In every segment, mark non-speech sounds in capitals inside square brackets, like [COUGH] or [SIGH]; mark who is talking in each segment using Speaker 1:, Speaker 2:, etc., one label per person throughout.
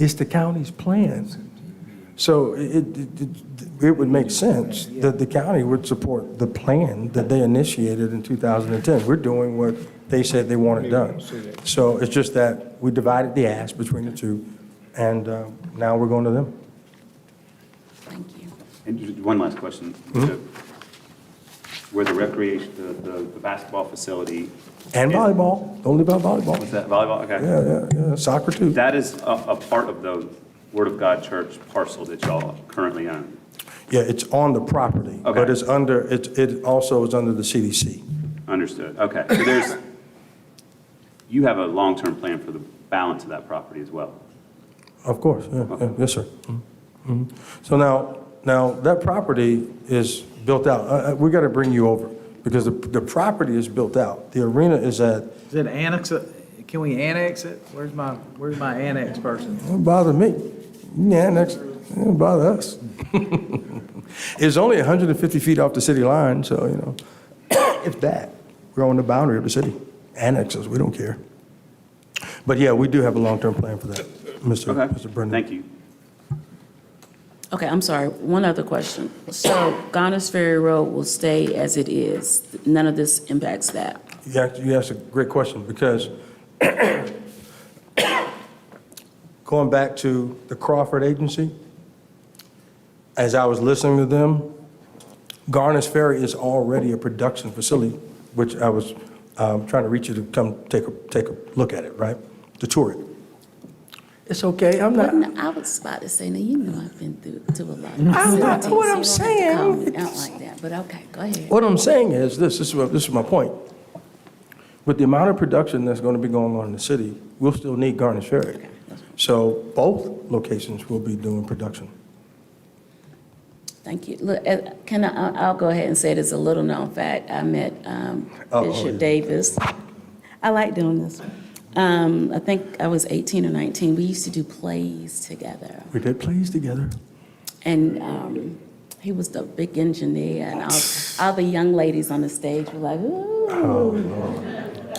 Speaker 1: It's the county's plan. So it, it- it, it would make sense that the county would support the plan that they initiated in 2010. We're doing what they said they wanted done. So it's just that we divided the ask between the two, and uh, now we're going to them.
Speaker 2: Thank you.
Speaker 3: And just one last question.
Speaker 1: Mm-hmm.
Speaker 3: Where the recreation, the- the the basketball facility,
Speaker 1: And volleyball, don't leave out volleyball.
Speaker 3: was that volleyball? Okay.
Speaker 1: Yeah, yeah, yeah, soccer too.
Speaker 3: That is a a part of the Word of God Church parcel that y'all currently own.
Speaker 1: Yeah, it's on the property, but
Speaker 3: Okay.
Speaker 1: it's under, it, it also is under the CDC.
Speaker 3: Understood. Okay. So there's, you have a long-term plan for the balance of that property as well?
Speaker 1: Of course, yeah, yeah, yes, sir. Mhm, mhm. So now, now, that property is built out. Uh, uh, We got to bring you over, because the, the property is built out. The arena is at,
Speaker 4: Is it annex, it? can we annex it? Where's my, where's my annex person?
Speaker 1: don't bother me, yeah, next, don't bother us. [LAUGHS] It's only 150 feet off the city line, so, you know, [COUGHS] if that, we're on the boundary of the city. Annexes, we don't care. But yeah, we do have a long-term plan for that, Mr.
Speaker 3: Okay.
Speaker 1: Mr. Mm-hmm. Brendan.
Speaker 3: Thank you.
Speaker 2: Okay, I'm sorry, one other question. So Gonis Ferry Road will stay as it is? None of this impacts that?
Speaker 1: You asked, you asked a great question, because [COUGHS] going back to the Crawford Agency, as I was listening to them, Garner's Ferry is already a production facility, which I was um, trying to reach you to come take a, take a look at it, right? To tour it. It's okay, I'm not,
Speaker 2: Wouldn't- I was about to say, now you know I've been through, to a lot. of
Speaker 1: I'm not-
Speaker 2: facilities,
Speaker 1: what I'm
Speaker 2: so you don't have to call
Speaker 1: saying-
Speaker 2: me Out like that, but okay, go ahead.
Speaker 1: What I'm saying is this, this is, what- this is my point. With the amount of production that's going to be going on in the city, we'll still need Garnish Ferry. So both locations will be doing production.
Speaker 2: Thank you. Look, eh, can I, I'll- I'll go ahead and say this, a little known fact, I met um,
Speaker 1: Oh, oh,
Speaker 2: Bishop
Speaker 1: yeah.
Speaker 2: Davis. I like doing this. Um, I think I was 18 or 19, we used to do plays together.
Speaker 1: We did plays together.
Speaker 2: And um, he was the big engineer, and all, all the young ladies on the stage were like, ooh,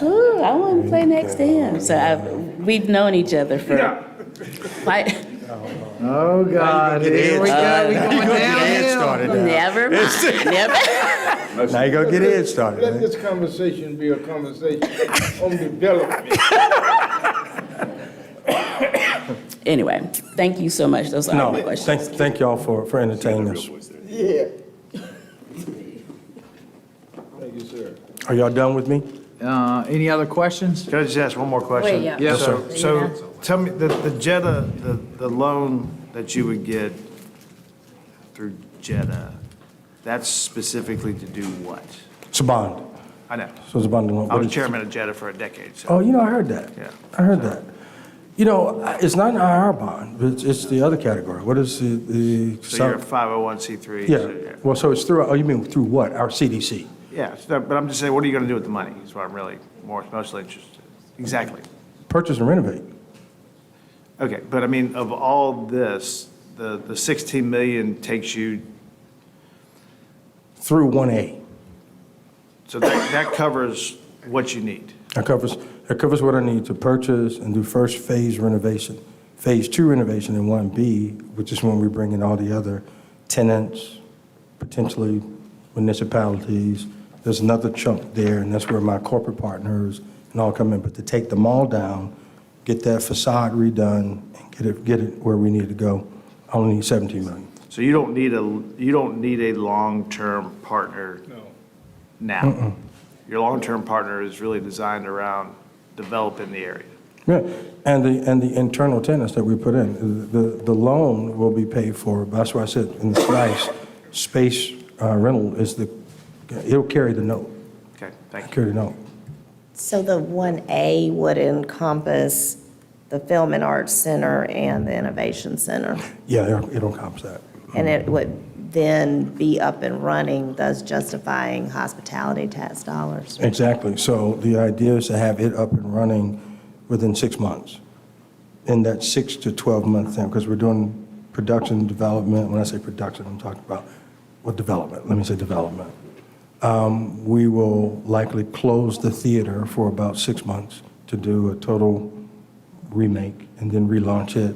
Speaker 2: ooh, I want to play next to him. So I, we've known each other for quite,
Speaker 4: Oh, God, uh, here we go, we [LAUGHS] going downhill.
Speaker 2: never mind, never.
Speaker 1: Now you gonna get Ed started,
Speaker 5: Let
Speaker 1: man.
Speaker 5: this conversation be a conversation on development.
Speaker 2: Anyway, thank you so much, those are all my
Speaker 1: No,
Speaker 2: questions.
Speaker 1: thank, thank y'all for, for entertaining us.
Speaker 5: Yeah. Thank you, sir.
Speaker 1: Are y'all done with me?
Speaker 4: Uh, any other questions?
Speaker 6: Can I just ask one more question?
Speaker 2: Wait, yeah.
Speaker 4: Yes,
Speaker 6: So, so tell me, the, the Jetta, the, the loan that you would get through Jetta, that's specifically to do what?
Speaker 1: It's a bond.
Speaker 6: I know.
Speaker 1: So it's a bond loan.
Speaker 6: I was chairman of Jetta for a decade, so.
Speaker 1: Oh, you know, I heard that.
Speaker 6: Yeah.
Speaker 1: I heard that. You know, I- it's not an IR bond, but it's, it's the other category. What is the, the?
Speaker 6: So you're a 501c3. so
Speaker 1: Yeah, well, so it's through, oh, you mean through what? Our CDC?
Speaker 6: Yeah, so, but I'm just saying, what are you going to do with the money? Is what I'm really more, mostly interested. Exactly.
Speaker 1: Purchase and renovate.
Speaker 6: Okay, but I mean, of all this, the, the 16 million takes you,
Speaker 1: Through 1A.
Speaker 6: so that, that covers what you need.
Speaker 1: That covers, that covers what I need to purchase and do first phase renovation. Phase two renovation and 1B, which is when we bring in all the other tenants, potentially municipalities. There's another chunk there, and that's where my corporate partners and all come in. But to take them all down, get that facade redone, and get it, get it where we need to go, I only need 17 million.
Speaker 6: So you don't need a, you don't need a long-term partner now. Your long-term partner is really designed around developing the area.
Speaker 1: Yeah, and the, and the internal tenants that we put in, the, the loan will be paid for, that's why I said in the slice, space uh, rental is the, it'll carry the note,
Speaker 6: Okay, thank you.
Speaker 1: carry the note.
Speaker 7: So the 1A would encompass the Film and Arts Center and the Innovation Center,
Speaker 1: Yeah, it'll- it'll encompass that.
Speaker 7: and it would then be up and running, thus justifying hospitality tax dollars.
Speaker 1: Exactly, so the idea is to have it up and running within six months, in that six to 12-month time, because we're doing production development, when I say production, I'm talking about, well, development, let me say development. Um, We will likely close the theater for about six months to do a total remake and then relaunch it